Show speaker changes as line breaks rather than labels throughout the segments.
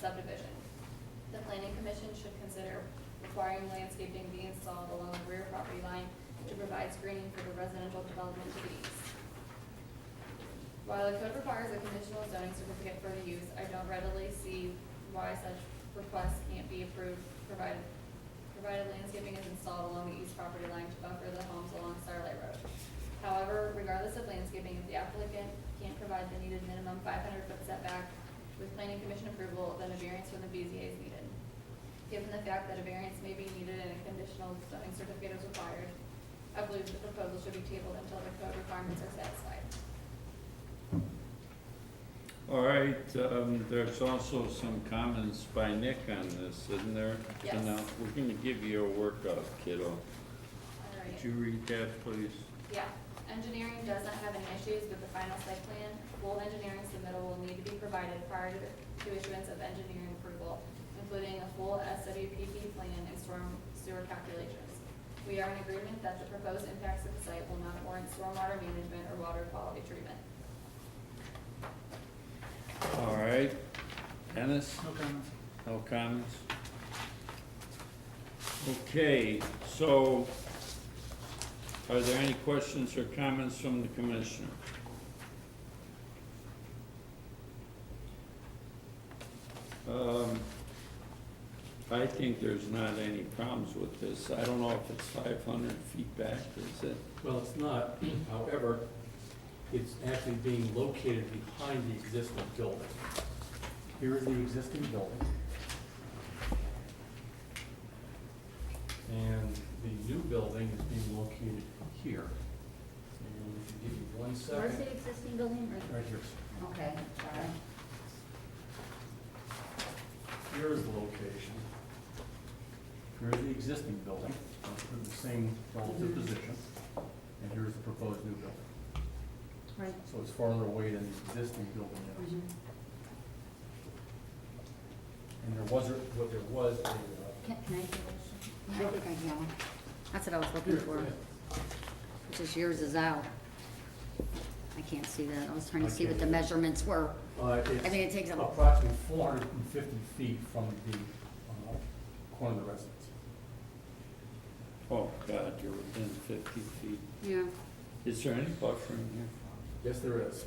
subdivision. The planning commission should consider requiring landscaping be installed along the rear property line to provide screening for the residential development to the east. While the code requires a conditional zoning certificate for the use, I don't readily see why such requests can't be approved, provided, provided landscaping is installed along the east property line to buffer the homes along Starlight Road. However, regardless of landscaping, if the applicant can't provide the needed minimum five hundred foot setback with planning commission approval, then a variance from the BZA is needed. Given the fact that a variance may be needed and a conditional zoning certificate is required, I believe the proposal should be tabled until the code requirements are satisfied.
All right, um, there's also some comments by Nick on this, isn't there?
Yes.
And, uh, We're gonna give you a workout, kiddo.
All right.
Could you read that, please?
Yeah, engineering does not have any issues with the final site plan. Full engineering submittal will need to be provided prior to- to issuance of engineering approval, including a full SWPP plan and storm sewer calculations. We are in agreement that the proposed impacts of the site will not warrant stormwater management or water quality treatment.
All right, Dennis,
No comments.
no comments? Okay, so are there any questions or comments from the commissioner? Um, I think there's not any problems with this. I don't know if it's 500 feet back, is it?
Well, it's not, however, it's actually being located behind the existing building.
Here is the existing building.
And the new building is being located here. And if you give me one
Where's
second,
the existing building?
right here.
Okay, sorry.
Here is the location.
Here is the existing building, in the same relative position. And here is the proposed new building.
Right.
So it's farther away than the existing building is.
Mm-hmm.
And there was, a- what there was, a, uh,
Can can I do this? I think I can. That's what I was looking for. It's just yours is out. I can't see that. I was trying to see what the measurements were.
I
I think it takes a-
uh, approximately 450 feet from the uh, corner of the residence.
Oh, God, you're within 50 feet.
Yeah.
Is there any buffering here?
Yes, there is.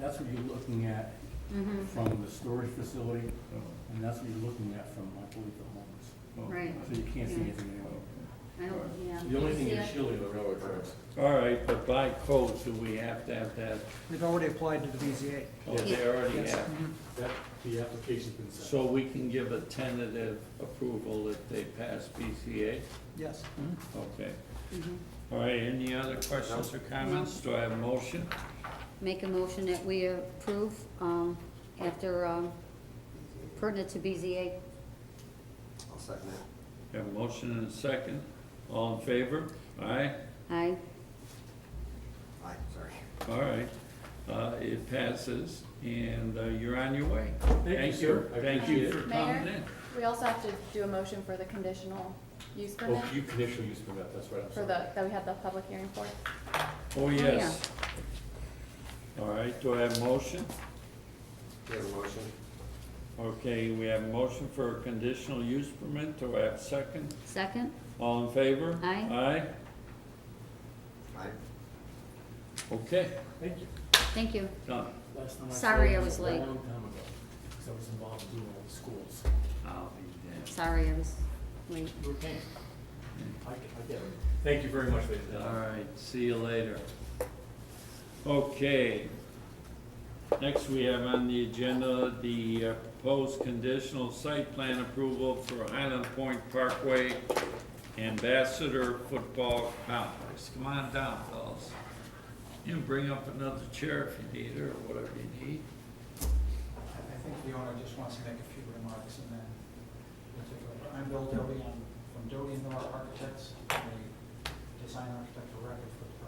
That's what you're looking at
Mm-hmm.
from the storage facility,
Oh,
and that's what you're looking at from, I believe, the
oh,
Right.
homes. So you can't see anything anywhere.
okay.
I don't, yeah.
The only thing
Yeah.
is shielding the railroad tracks.
All right, but by code, do we have to have that?
They've already applied to the BZA.
Oh, they already
Yes.
have.
That, the application's been sent.
So we can give a tentative approval if they pass BCA?
Yes.
Okay.
Mhm.
All right, any other questions or comments? Do I have a motion?
Make a motion that we approve, um, after, um, pertinent to BZA.
I'll second it.
Have a motion and a second. All in favor? Aye?
Aye.
Aye, sorry.
All right. Uh, it passes and uh, you're on your way.
you, sir. I
Thank you
appreciate
for
it.
coming
Mayor?
in.
We also have to do a motion for the conditional use
Oh, you conditional use permit, that's right, I'm sorry.
that we had the public hearing for.
Oh, yes. All right, do I have a motion?
Do you have a motion?
Okay, we have a motion for a conditional use permit. Do I have a second?
Second?
All in favor?
Aye.
Aye?
Aye.
Okay,
Thank you.
Thank you.
done.
Last time I
Sorry,
saw
I
it
was
a
late.
long time ago, 'cause I was involved in doing all the schools.
I'll be dead.
Sorry, I was late.
You were paying. I, I get it. Thank you very much, ladies and
All
gentlemen.
right, see you later. Okay. Next, we have on the agenda the uh, proposed conditional site plan approval for Highland Point Parkway Ambassador Football Complex. Come on down, fellas. You can bring up another chair if you need, or whatever you need.
I I think the owner just wants to make a few remarks and then we'll take over. I'm Bill Doty, I'm from Doty and Miller Architects, I'm a design architect for record for the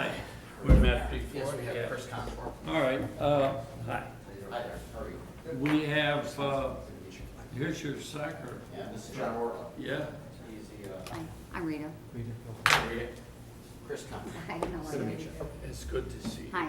project.
Hi, we met before.
Yes, we
Yeah.
have Chris Conform.
All right, uh, hi.
Hi there, how are you?
We have, uh, here's your soccer,
Yeah, this is John Orla.
yeah.
He's the,
Hi, I'm Rita.
uh, Chris Conform.
Hi, how are you?
It's good to see you.
Hi.